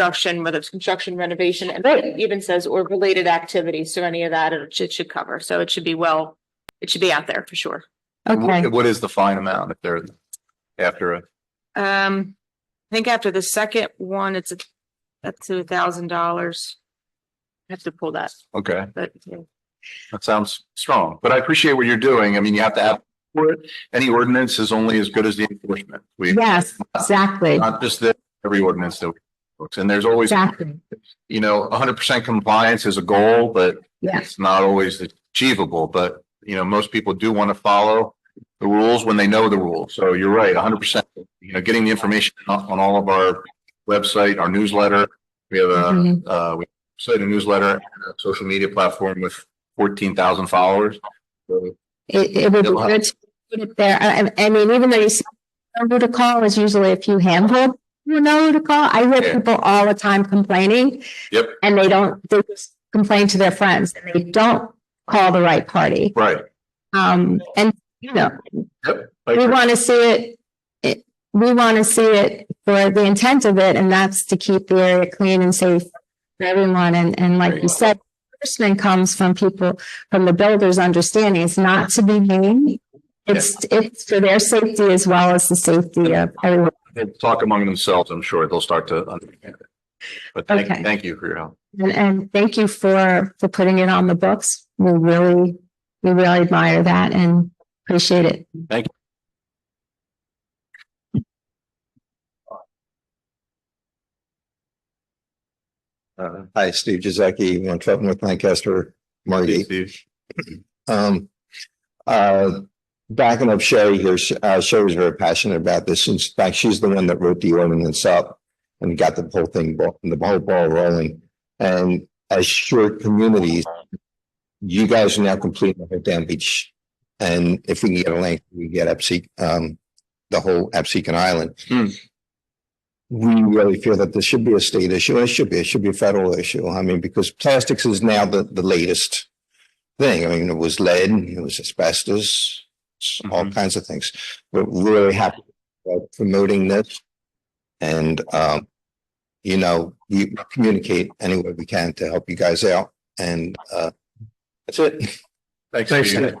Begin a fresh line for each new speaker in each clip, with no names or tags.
construction, whether it's construction renovation, and it even says or related activities, so any of that, it should, should cover, so it should be well, it should be out there for sure.
Okay,
What is the fine amount if they're after a?
Um, I think after the second one, it's a- up to a thousand dollars. I Have to pull that,
Okay,
but yeah.
that sounds strong, but I appreciate what you're doing. I mean, you have to have for it. Any ordinance is only as good as the enforcement. We,
yes, exactly,
not just that, every ordinance that we books. And there's always,
exactly.
you know, hundred percent compliance is a goal, but
Yeah.
it's not always achievable, but you know, most people do want to follow the rules when they know the rules. So you're right, hundred percent, you know, getting the information on on all of our website, our newsletter. We have a
Mhm.
uh, we started a newsletter, and a social media platform with fourteen thousand followers. So
It, it would be
It'll help.
good to put it there. I, I- I mean, even though you say know who to call is usually a few handful, you know who to call. I hear
Yeah.
people all the time complaining.
Yep.
And they don't, they just complain to their friends and they don't call the right party.
Right.
Um, and, you know,
Like,
we want to see it, it, we want to see it for the intent of it, and that's to keep the area clean and safe for everyone. And, and like you
Right.
said, enforcement comes from people, from the builders understanding it's not to be mean. It's, it's for their safety as well as the safety of everyone.
they'll Talk among themselves, I'm sure they'll start to understand it. But thank,
Okay.
thank you for your help.
And, and thank you for, for putting it on the books. We really, we really admire that and appreciate it.
Thank
Uh, hi, Steve Giacchi, one Trenton with Lancaster, Margate.
Steve.
Um, uh, backing up Sherry here, Sh- uh, Sherry was very passionate about this. In fact, she's the one that wrote the ordinance up and got the whole thing, bo- the whole ball rolling. And as short communities, you guys are now completing the whole damn beach. And if we can get a link, we get Epsec, um, the whole Epsecan Island.
Hmm.
We really feel that this should be a state issue. and It should be, it should be a federal issue. I mean, because plastics is now the, the latest thing. I mean, it was lead, it was asbestos, s- all
Mhm.
kinds of things. We're really happy about promoting this. And, um, you know, we communicate any way we can to help you guys out and, uh, that's it.
Thanks. Steve. See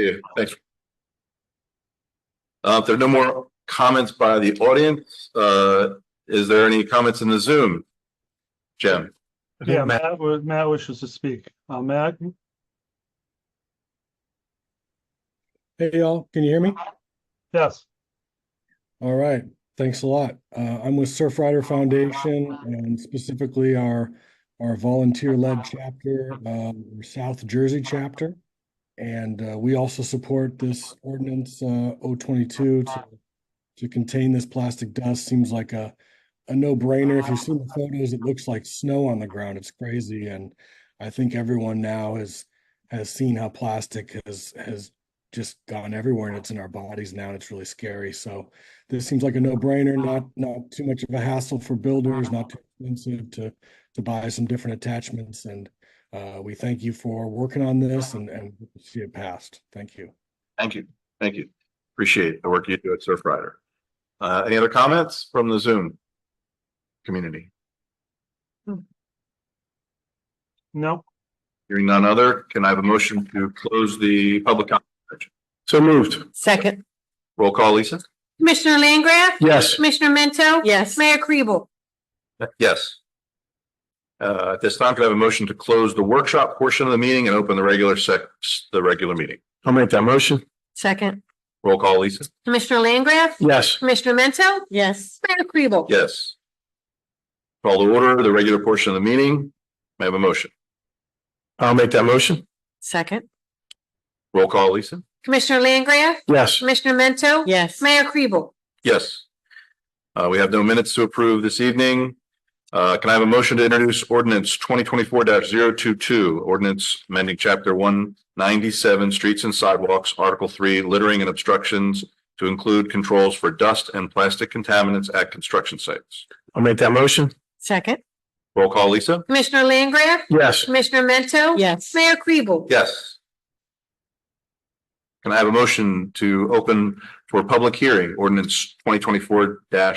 you. Thanks. Uh, if there are no more comments by the audience, uh, is there any comments in the Zoom? Jim?
Okay, Yeah, Matt, wa- Matt wishes to speak. Uh, Matt,
Hey, y'all, can you hear me?
yes,
All right, thanks a lot. Uh, I'm with Surf Rider Foundation and specifically our, our volunteer-led chapter, um, South Jersey chapter. And, uh, we also support this ordinance, uh, O twenty-two to, to contain this plastic dust. Seems like a, a no-brainer. If you've seen the photos, it looks like snow on the ground. It's crazy. And I think everyone now has, has seen how plastic has, has just gone everywhere and it's in our bodies now and it's really scary. So, this seems like a no-brainer, not, not too much of a hassle for builders, not too expensive to, to buy some different attachments. And uh, we thank you for working on this and, and see it passed. Thank you.
Thank you. Thank you. Appreciate the work you do at Surf Rider. Uh, any other comments from the Zoom community?
no,
Hearing none other, can I have a motion to close the public comment? So moved.
Second.
Roll call, Lisa?
Commissioner Langgraf?
Yes.
Commissioner Mento?
Yes.
Mayor Kribel?
Yes. Uh, at this time, can I have a motion to close the workshop portion of the meeting and open the regular sec, the regular meeting? I'll make that motion.
Second.
Roll call, Lisa?
Commissioner Langgraf?
Yes.
Commissioner Mento?
Yes.
Mayor Kribel?
Yes. Call to order the regular portion of the meeting. May I have a motion? I'll make that motion.
Second.
Roll call, Lisa?
Commissioner Langgraf?
Yes.
Commissioner Mento?
Yes.
Mayor Kribel?
Yes. Uh, we have no minutes to approve this evening. Uh, can I have a motion to introduce ordinance twenty twenty-four 22 ordinance amending chapter one ninety-seven, streets and sidewalks, article three, littering and obstructions to include controls for dust and plastic contaminants at construction sites. I'll make that motion.
Second.
Roll call, Lisa?
Commissioner Langgraf?
Yes.
Commissioner Mento?
Yes.
Mayor Kribel?
Yes. Can I have a motion to open for public hearing ordinance twenty twenty-four 21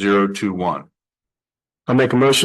zero two one?
I'll make a motion